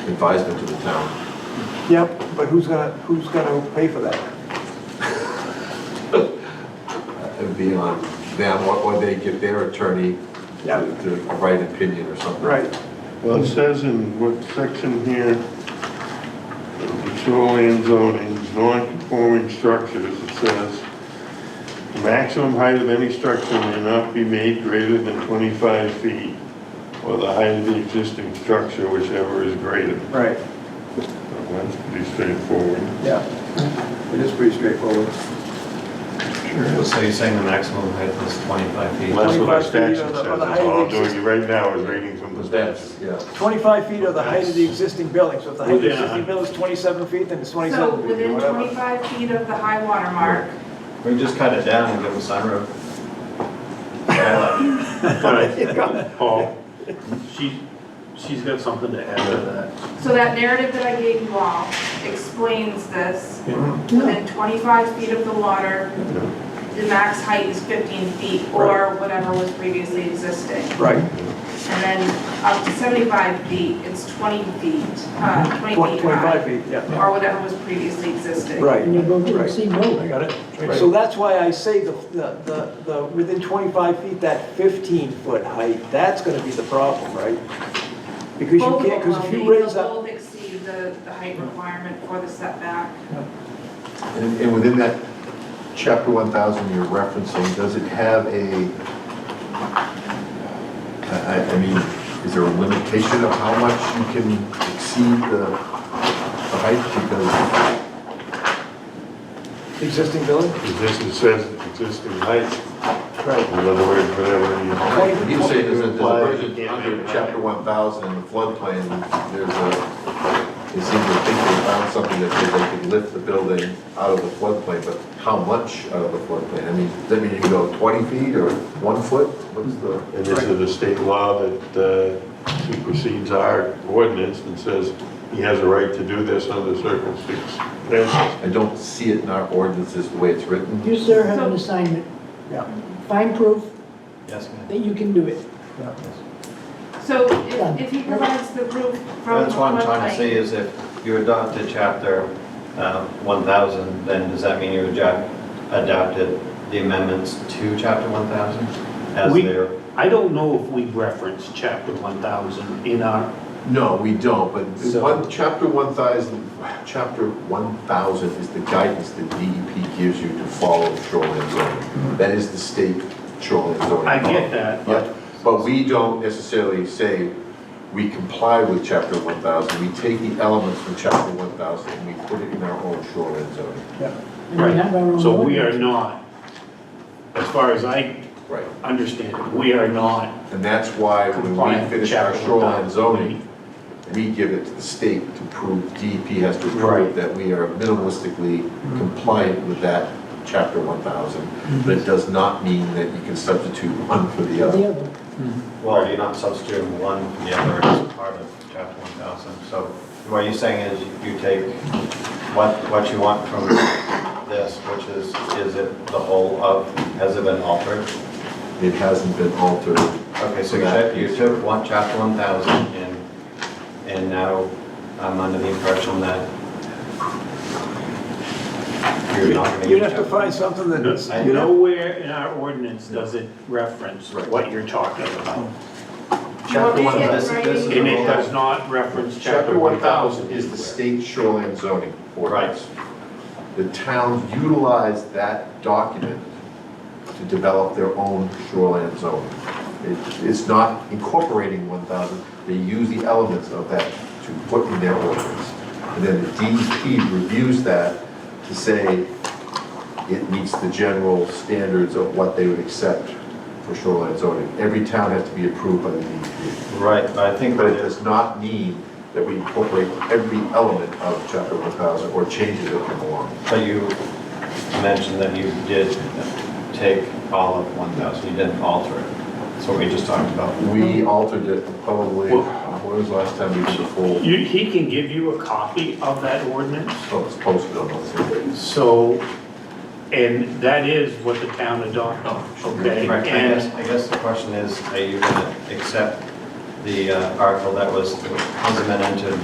advisement to the town. Yep, but who's gonna, who's gonna pay for that? It would be on them, or- or they give their attorney Yeah. to to write an opinion or something. Right, Well, it says in what section here, shoreline zoning, non-conforming structures, it says, "The maximum height of any structure may not be made greater than 25 feet, or the height of the existing structure, whichever is greater. right, So That's pretty straightforward. yeah. It is pretty straightforward. So you're saying the maximum height is 25 feet? Well, That's what 25 our feet statute of says, the- that's of the height of all I'm the doing right now is reading from the Because statute. that's, yeah. 25 feet of the height of the existing building, so if the height of the Within a existing hundred. building is 27 feet, then it's So 27 feet, within whatever. 25 feet of the high water mark, We just cut it down and give them sunroof. Skylight. Paul, she, she's got something to add to so that narrative that I gave you all explains this. Mm-hmm. Within 25 feet of the water, the max height is 15 feet or whatever was previously existing. Right, And then up to 75 feet, it's 20 feet, uh, Mm-hmm. 20 Twenty- feet 25 high. feet, yeah, Or whatever was previously existing. right. And you go to the right. same building. I got it. So that's why I say the, the, the- the, within 25 feet, that 15-foot height, that's gonna be the problem, right? Because you Both can't, of them because if you will be- raise they'll up, Both exceed the, the height requirement for the setback. And, and within that chapter one thousand you're referencing, does it have a, I, I- I mean, is there a limitation of how much you can exceed the, the height? existing building? Existing says existing height, in Right. other words, whatever you. Because you say there's a, there's a version Yeah. under chapter one thousand in the floodplain, there's a, it seems to think they found something that said they could lift the building out of the floodplain, but how much out of the floodplain? I mean, does that mean you can go twenty feet or one foot? What's the? And this is a state law that uh, supersedes our ordinance and says he has a right to do this under circumstances. I don't see it in our ordinances the way it's written. You, sir, have an assignment. Yeah. Find proof Yes, ma'am. that you can do it. yeah. So if, if he provides the proof from the That's what I'm trying to floodplain- say is if you adopted chapter um, 1,000, then does that mean you adjo- adopted the amendments to chapter 1,000 as We- their? that. I don't know if we referenced chapter 1,000 in our, No, we don't, but So- one, chapter one thousand, chapter one thousand is the guidance that DEP gives you to follow shoreline zoning. That is the state shoreline zoning. I law. get that, but Yeah, but we don't necessarily say we comply with chapter one thousand, we take the elements from chapter one thousand and we put it in our own shoreline zoning. And we have our own So we are ordinance. not, as far as I Right. understand it, we are not And that's why when we compliant with finish our chapter shoreline 1,000. zoning, we give it to the state to prove, DEP has to prove Right. that we are minimalistically compliant with that chapter one thousand. But it does not mean that you can substitute one for the other. The other. Well, you're not substituting one for the other as part of chapter 1,000. So what you're saying is you take what, what you want from this, which is, is it the whole of, has it been altered? It hasn't been altered. Okay, so you took, you took one, chapter 1,000 and, and now I'm under the impression that you're not going to. You'd have to find something that's, I- you know, Nowhere in our ordinance does it reference Right. what you're talking about. You want Chapter me to one, get this- it right this in? is And it does not reference Chapter chapter one thousand 1,000. is the state shoreline zoning ordinance. The towns utilize that document to develop their own shoreline zone. It- It's not incorporating one thousand, they use the elements of that to put in their ordinance. And then the DEP reviews that to say it meets the general standards of what they would accept for shoreline zoning. Every town has to be approved by the DEP. Right, but I think But what it it is, does not mean that we incorporate every element of chapter one thousand or changes that come along. but you mentioned that you did take all of 1,000, you didn't alter it. That's what we just talked about. We altered it probably, Well- when was the last time we did the full, You, he can give you a copy of that ordinance, oh, it's posted on those. so, and that is what the town adopted, okay? Right, I guess, And I guess the question is, are you going to accept the uh, article that was, was amended into